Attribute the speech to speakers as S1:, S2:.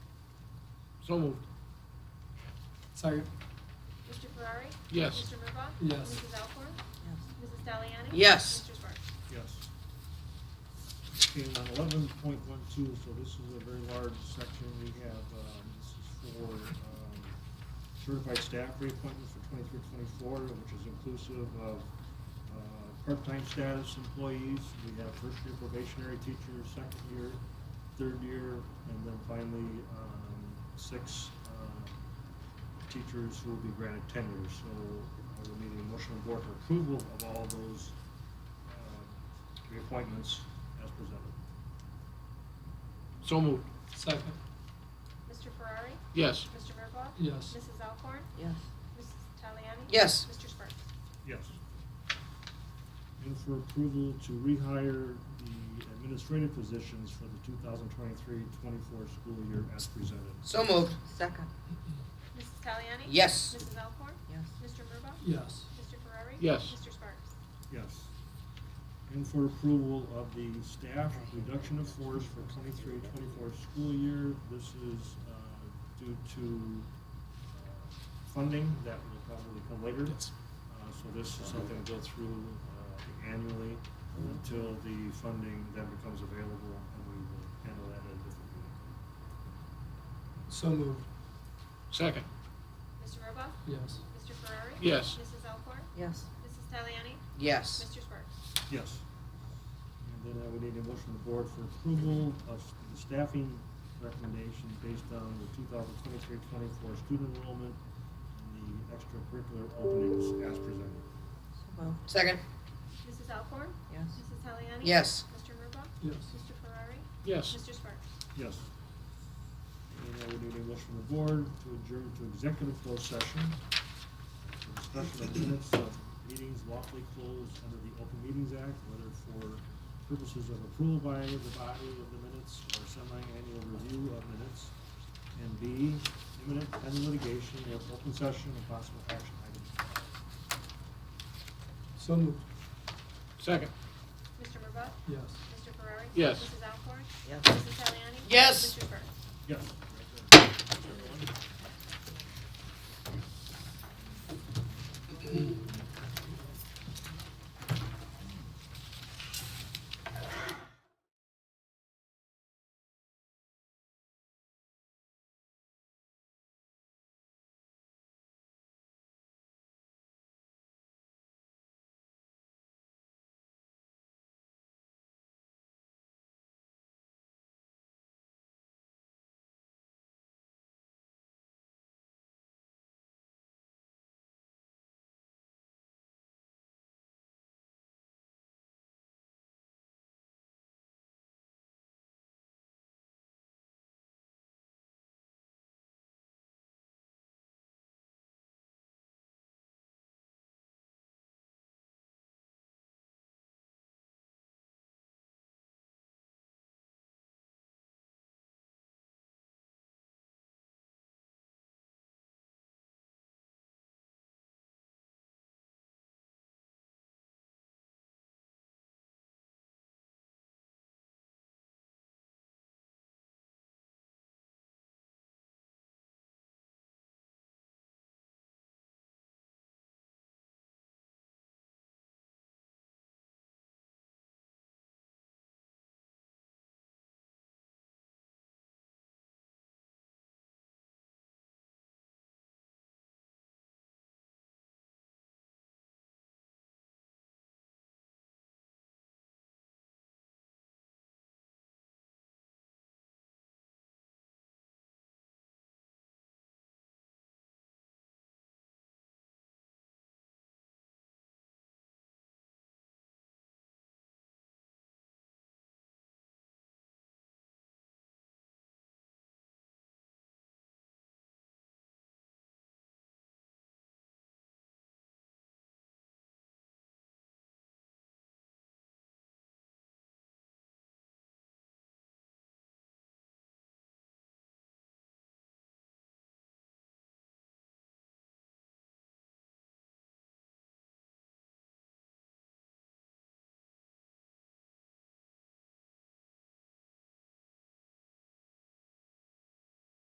S1: So moved.
S2: Second.
S3: Mr. Ferrari?
S1: Yes.
S3: Mr. Murbaugh?
S2: Yes.
S3: Mrs. Alcorn?
S4: yes,
S3: Mrs. Taliani?
S5: Yes.
S3: Mr. Sparks?
S1: Yes. Okay, on eleven point one two, so this is a very large section, we have, um, this is for, um, certified staff reappointment for twenty-three, twenty-four, which is inclusive of, uh, part-time status employees, we have first-year probationary teachers, second year, third year, and then finally, um, six, uh, teachers who will be granted tenure, so I will need a motion of board for approval of all those um, reappointments as presented.
S2: So moved. Second.
S3: Mr. Ferrari?
S1: Yes.
S3: Mr. Murbaugh?
S2: Yes.
S3: Mrs. Alcorn?
S4: yes,
S3: Mrs. Taliani?
S5: Yes.
S3: Mr. Sparks?
S1: Yes. And for approval to rehire the administrative positions for the 2023-24 school year as presented.
S5: So moved.
S4: second,
S3: Mrs. Taliani?
S5: Yes.
S3: Mrs. Alcorn?
S4: yes,
S3: Mr. Murbaugh?
S2: Yes.
S3: Mr. Ferrari?
S1: Yes.
S3: Mr. Sparks?
S1: Yes. And for approval of the staff reduction of force for 23-24 school year, this is uh, due to uh, funding that will probably come later. Uh, So this is something to go through uh, annually until the funding then becomes available, and we will handle that at a different meeting.
S2: So moved.
S6: Second,
S3: Mr. Murbaugh?
S2: Yes.
S3: Mr. Ferrari?
S6: Yes.
S3: Mrs. Alcorn?
S4: yes,
S3: Mrs. Taliani?
S5: Yes.
S3: Mr. Sparks?
S1: Yes. And then I would need a motion of the board for approval of s- the staffing recommendation based on the 2023-24 student enrollment and the extracurricular openings as presented.
S4: so moved,
S5: Second.
S3: Mrs. Alcorn?
S4: yes,
S3: Mrs. Taliani?
S5: Yes.
S3: Mr. Murbaugh?
S2: Yes.
S3: Mr. Ferrari?
S6: yes,
S3: Mr. Sparks?
S1: Yes. And I would need a motion of the board to adjourn to executive closed session for discussion of minutes of meetings lawfully closed under the Open Meetings Act, whether for purposes of approval by the body of the minutes or semi-annual review of minutes, and B, imminent pending litigation of open session and possible action items.
S2: So moved.
S6: second,
S3: Mr. Murbaugh?
S2: Yes.
S3: Mr. Ferrari?
S6: Yes.
S3: Mrs. Alcorn?
S4: Yes.
S3: Mrs. Taliani?
S5: Yes.
S3: Mr. Sparks?
S1: Yes.